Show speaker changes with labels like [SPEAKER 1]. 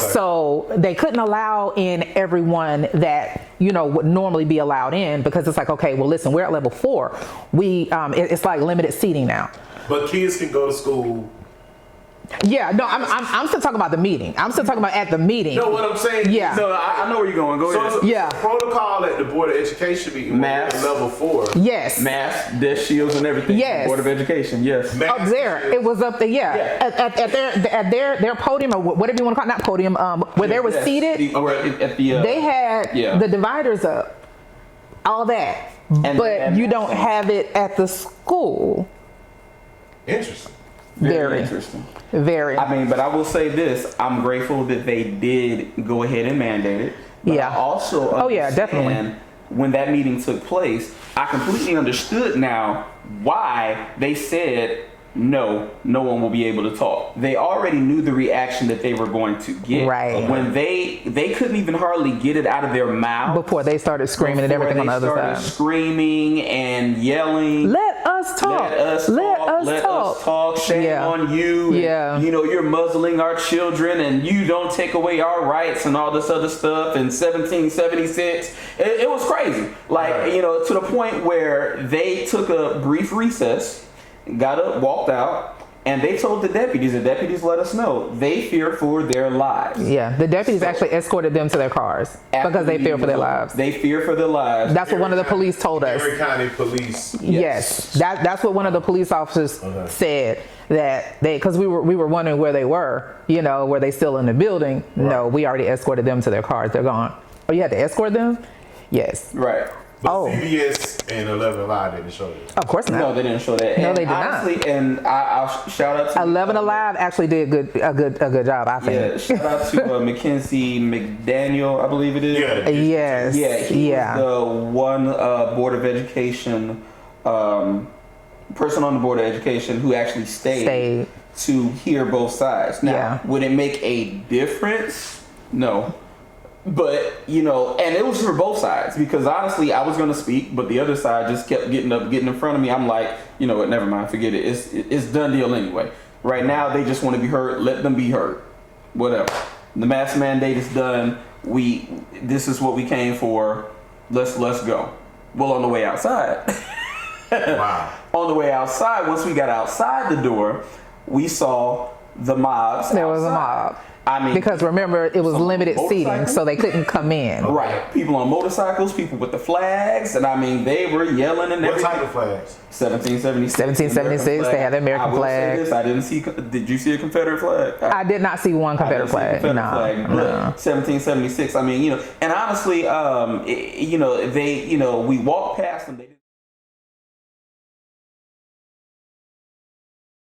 [SPEAKER 1] So they couldn't allow in everyone that you know would normally be allowed in because it's like, okay, well, listen, we're at level four. We um, it- it's like limited seating now.
[SPEAKER 2] But kids can go to school.
[SPEAKER 1] Yeah, no, I'm, I'm I'm still talking about the meeting. I'm still talking about at the meeting.
[SPEAKER 2] You know what I'm saying?
[SPEAKER 1] Yeah.
[SPEAKER 3] No, I, I know where you're going. Go
[SPEAKER 2] So
[SPEAKER 3] ahead.
[SPEAKER 2] it's a
[SPEAKER 1] Yeah.
[SPEAKER 2] protocol at the Board of Education meeting when we're at
[SPEAKER 3] Math.
[SPEAKER 2] level four.
[SPEAKER 1] Yes.
[SPEAKER 3] Masks, death shields, and everything.
[SPEAKER 1] Yes.
[SPEAKER 3] Board of Education. Yes.
[SPEAKER 1] up there. It was up there. Yeah,
[SPEAKER 3] Yeah.
[SPEAKER 1] At, at, at their at their their podium or wh- whatever you want to call it, not podium. Um, where they were
[SPEAKER 3] Yes.
[SPEAKER 1] seated,
[SPEAKER 3] The- or at, at the. Uh,
[SPEAKER 1] they had
[SPEAKER 3] Yeah.
[SPEAKER 1] the dividers up, all that.
[SPEAKER 3] they
[SPEAKER 1] but
[SPEAKER 3] had
[SPEAKER 1] you don't
[SPEAKER 3] masks on.
[SPEAKER 1] have it at the school.
[SPEAKER 2] Interesting.
[SPEAKER 1] Very, very.
[SPEAKER 3] interesting. I mean, but I will say this: I'm grateful that they did go ahead and mandate it. But
[SPEAKER 1] Yeah.
[SPEAKER 3] I also,
[SPEAKER 1] Oh, yeah,
[SPEAKER 3] understand
[SPEAKER 1] definitely.
[SPEAKER 3] When that meeting took place, I completely understood now why they said no. No one will be able to talk. They already knew the reaction that they were going to get.
[SPEAKER 1] Right.
[SPEAKER 3] When they they couldn't even hardly get it out of their mouth
[SPEAKER 1] before they started screaming and
[SPEAKER 3] before
[SPEAKER 1] everything on the other
[SPEAKER 3] they started
[SPEAKER 1] side.
[SPEAKER 3] Screaming and yelling.
[SPEAKER 1] Let us talk.
[SPEAKER 3] Let us talk. let us talk. Shame
[SPEAKER 1] Yeah.
[SPEAKER 3] on you. and,
[SPEAKER 1] Yeah.
[SPEAKER 3] You know, you're muzzling our children and you don't take away our rights and all this other stuff. And 1776, it, it was crazy. Like,
[SPEAKER 2] Right.
[SPEAKER 3] you know, to the point where they took a brief recess, got up, walked out. And they told the deputies, the deputies let us know they fear for their lives.
[SPEAKER 1] Yeah, the deputies
[SPEAKER 3] So-
[SPEAKER 1] actually escorted them to their cars
[SPEAKER 3] After
[SPEAKER 1] because they
[SPEAKER 3] the
[SPEAKER 1] feared for their
[SPEAKER 3] meeting was over,
[SPEAKER 1] lives.
[SPEAKER 3] They fear for their lives.
[SPEAKER 1] That's what one of the police told us.
[SPEAKER 2] Perry County Police.
[SPEAKER 1] Yes, that that's what one of the police officers
[SPEAKER 3] Uh-huh.
[SPEAKER 1] said that they because we were we were wondering where they were, you know, were they still in the building? No, we already escorted them to their cars. They're gone. Oh, you had to escort them? Yes.
[SPEAKER 3] right.
[SPEAKER 2] But
[SPEAKER 1] Oh.
[SPEAKER 2] CBS and 11 Live didn't show you.
[SPEAKER 1] Of course
[SPEAKER 3] No,
[SPEAKER 1] not.
[SPEAKER 3] they didn't show that.
[SPEAKER 1] No,
[SPEAKER 3] and
[SPEAKER 1] they did not.
[SPEAKER 3] honestly, And I, I'll sh- shout out to
[SPEAKER 1] Eleven Alive actually did good a good a good job. I
[SPEAKER 3] Yeah,
[SPEAKER 1] think.
[SPEAKER 3] shout out to uh, Mackenzie McDaniel, I believe it is.
[SPEAKER 2] Yeah.
[SPEAKER 1] Yes.
[SPEAKER 3] yeah, he
[SPEAKER 1] Yeah.
[SPEAKER 3] was the one uh, board of education um, person on the board of education who actually stayed,
[SPEAKER 1] Stayed.
[SPEAKER 3] to hear both sides. Now,
[SPEAKER 1] Yeah.
[SPEAKER 3] would it make a difference? No. But you know, and it was for both sides because honestly, I was going to speak, but the other side just kept getting up, getting in front of me. I'm like, you know what? Never mind, forget it. It's it's done deal anyway. Right now, they just want to be heard. Let them be heard. Whatever. The mask mandate is done. We this is what we came for. Let's let's go. Well, on the way outside.
[SPEAKER 2] Wow.
[SPEAKER 3] on the way outside, once we got outside the door, we saw the mobs.
[SPEAKER 1] There was a
[SPEAKER 3] outside.
[SPEAKER 1] mob.
[SPEAKER 3] I mean,
[SPEAKER 1] Because remember, it was
[SPEAKER 3] Some
[SPEAKER 1] limited seating,
[SPEAKER 3] motorcycle?
[SPEAKER 1] so they couldn't come in.
[SPEAKER 3] right, people on motorcycles, people with the flags, and I mean, they were yelling and
[SPEAKER 2] What
[SPEAKER 3] everything.
[SPEAKER 2] type of flags?
[SPEAKER 3] 1776.
[SPEAKER 1] 1776, they had the American
[SPEAKER 3] I will
[SPEAKER 1] flag.
[SPEAKER 3] Say this, I didn't see. Did you see a Confederate flag?
[SPEAKER 1] I did not see one Confederate flag.
[SPEAKER 3] Confederate
[SPEAKER 1] no,
[SPEAKER 3] flag, but
[SPEAKER 1] no.
[SPEAKER 3] 1776. I mean, you know, and honestly, um, it- you know, they, you know, we walked past them. They didn't